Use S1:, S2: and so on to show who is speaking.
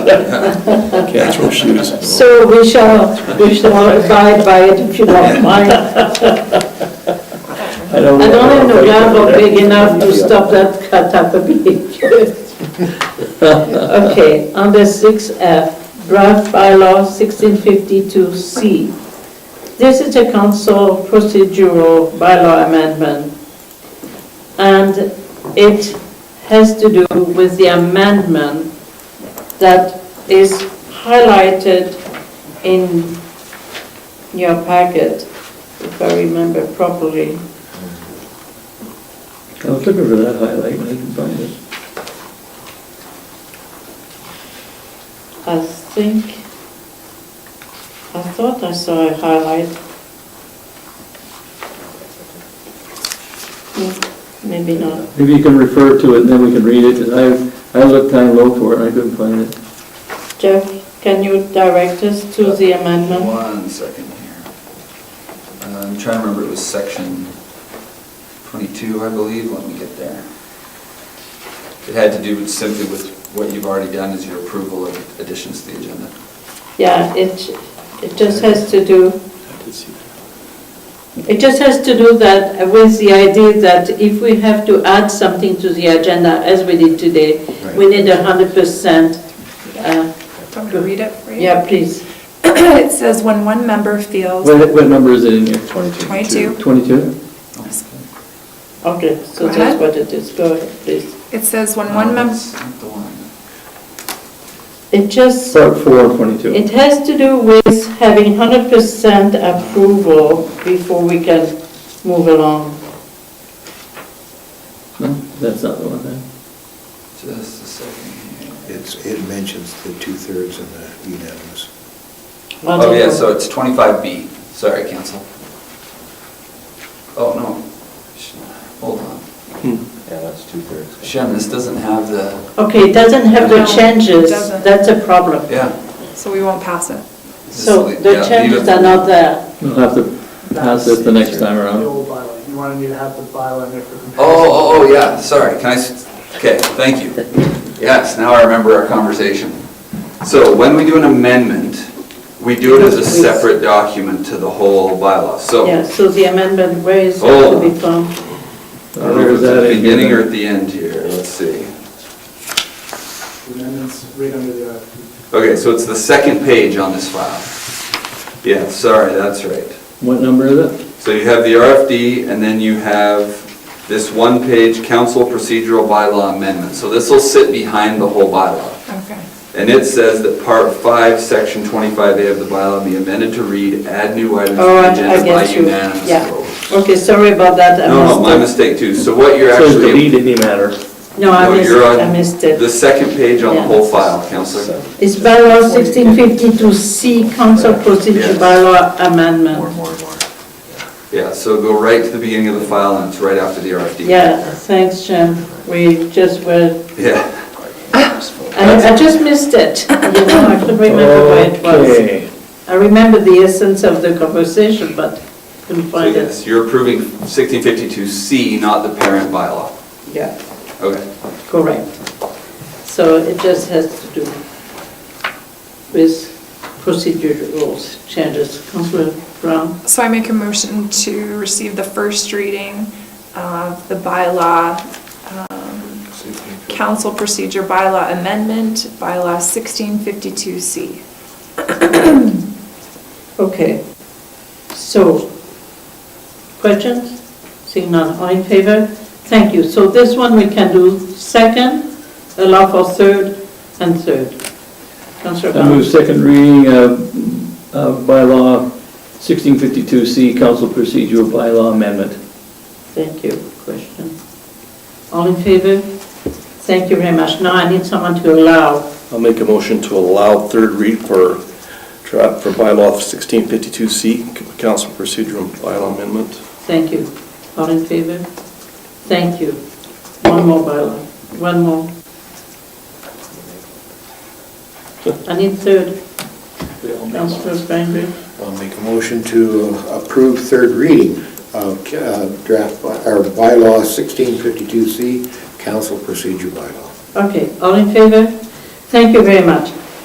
S1: Can't throw shoes.
S2: So we shall, we shall abide by it if you don't mind. I
S3: don't
S2: don't have a gavel big enough to stop that cut up a bit. Okay, under six F, draft bylaw sixteen fifty-two C. This is a council procedural bylaw amendment. And it has to do with the amendment that is highlighted in your packet, if I remember properly.
S3: I was looking for that highlight, and I didn't find it.
S2: I think, I thought I saw a highlight. Hmm, Maybe not.
S3: Maybe you can refer to it, and then we can read it, because I, I looked down low for it, and I couldn't find it.
S2: Jeff, can you direct us to the amendment?
S4: One second here. Uh, I'm trying to remember, it was section 22, I believe, let me get there. It had to do simply with what you've already done as your approval of additions to the agenda.
S2: Yeah, it, it just has to do,
S1: I did see that.
S2: it just has to do that with the idea that if we have to add something to the agenda, as we did today, we need a hundred percent. uh,
S5: Want me to read it for you?
S2: Yeah, please.
S5: It says, when one member feels,
S3: What, what number is it in here? Twenty-two.
S5: 22,
S3: Twenty-two?
S2: Okay, so
S5: Go
S2: that's
S5: ahead.
S2: what it is. Go ahead, please.
S5: it says, when one member,
S4: Uh, That's not the one.
S2: It just,
S3: Part four, twenty-two.
S2: it has to do with having 100% approval before we can move along.
S3: No, that's not the one there.
S4: Just a second here.
S6: It's, it mentions the two-thirds and the unanimous.
S4: Oh, yeah, so it's 25B, sorry, council. Oh, no, Sh- hold on.
S6: Yeah, that's two-thirds.
S4: Shem, this doesn't have the,
S2: Okay, it doesn't have the
S5: No, it
S2: changes,
S5: doesn't.
S2: that's a problem.
S4: yeah.
S5: so we won't pass it.
S4: This
S2: So
S4: is- yeah,
S2: the
S4: leave
S2: changes
S4: it.
S2: are not there.
S3: We'll have to pass this the next time
S7: The
S3: around.
S7: old bylaw, you wanted me to have the bylaw in there for comparison.
S4: Oh, oh, oh, yeah, sorry, can I, s- okay, thank you. Yes, now I remember our conversation. So when we do an amendment, we do it as a separate document to the whole bylaw, so.
S2: Yeah, so the amendment, where is it
S4: Oh.
S2: to be found?
S3: I
S4: I
S3: don't
S4: don't
S3: know if
S4: know if it's at
S3: that
S4: the
S3: in here
S4: beginning
S3: then.
S4: or at the end here, let's see.
S7: The amendment's right under the uh, RFP.
S4: Okay, so it's the second page on this file. Yeah, sorry, that's right.
S3: What number is it?
S4: So you have the RFD, and then you have this one-page council procedural bylaw amendment. So this will sit behind the whole bylaw.
S5: Okay.
S4: And it says that part five, section twenty-five A of the bylaw be amended to read, add new items to
S2: Oh, I
S4: the
S2: I
S4: agenda by
S2: get you,
S4: unanimous vote.
S2: yeah. Okay, sorry about that, I
S4: No, no, my
S2: missed
S4: mistake too. So what you're
S3: So
S4: actually,
S3: delete any matter.
S2: it. No, I
S4: No,
S2: missed
S4: you're
S2: it,
S4: on
S2: I missed
S4: the
S2: it.
S4: second page on the
S2: Yeah.
S4: whole file, Counselor.
S2: It's bylaw 1652C, council procedure
S4: Yes.
S2: bylaw amendment.
S4: More, more, more. Yeah, so go right to the beginning of the file and it's right after the RFD.
S2: Yeah, thanks, Jim. We just were,
S4: Yeah.
S2: I I just missed it. You know, I couldn't remember where it was.
S3: Okay.
S2: I remember the essence of the conversation, but couldn't
S4: So
S2: find it.
S4: yes, you're approving sixteen fifty-two C, not the parent bylaw.
S2: Yeah,
S4: Okay.
S2: correct. So it just has to do with procedure rules, changes. Councilor Brown?
S5: So I make a motion to receive the first reading of the bylaw, um, council procedure bylaw amendment, bylaw 1652C.
S2: Okay. So, questions? Seeing none, all in favor? Thank you. So this one we can do second, allow for third and third. Councillor
S3: I move
S2: Brown?
S3: second reading of, of bylaw 1652C, council procedural bylaw amendment.
S2: Thank you. Question? All in favor? Thank you very much. Now I need someone to allow.
S1: I'll make a motion to allow third read for, dra- for bylaw 1652C, council procedural bylaw amendment.
S2: Thank you. All in favor? Thank you. One more bylaw, one more. I need third. Councillor Banbury?
S6: I'll make a motion to approve third reading of uh, draft, by- or bylaw 1652C, council procedure bylaw.
S2: Okay, all in favor? Thank you very much.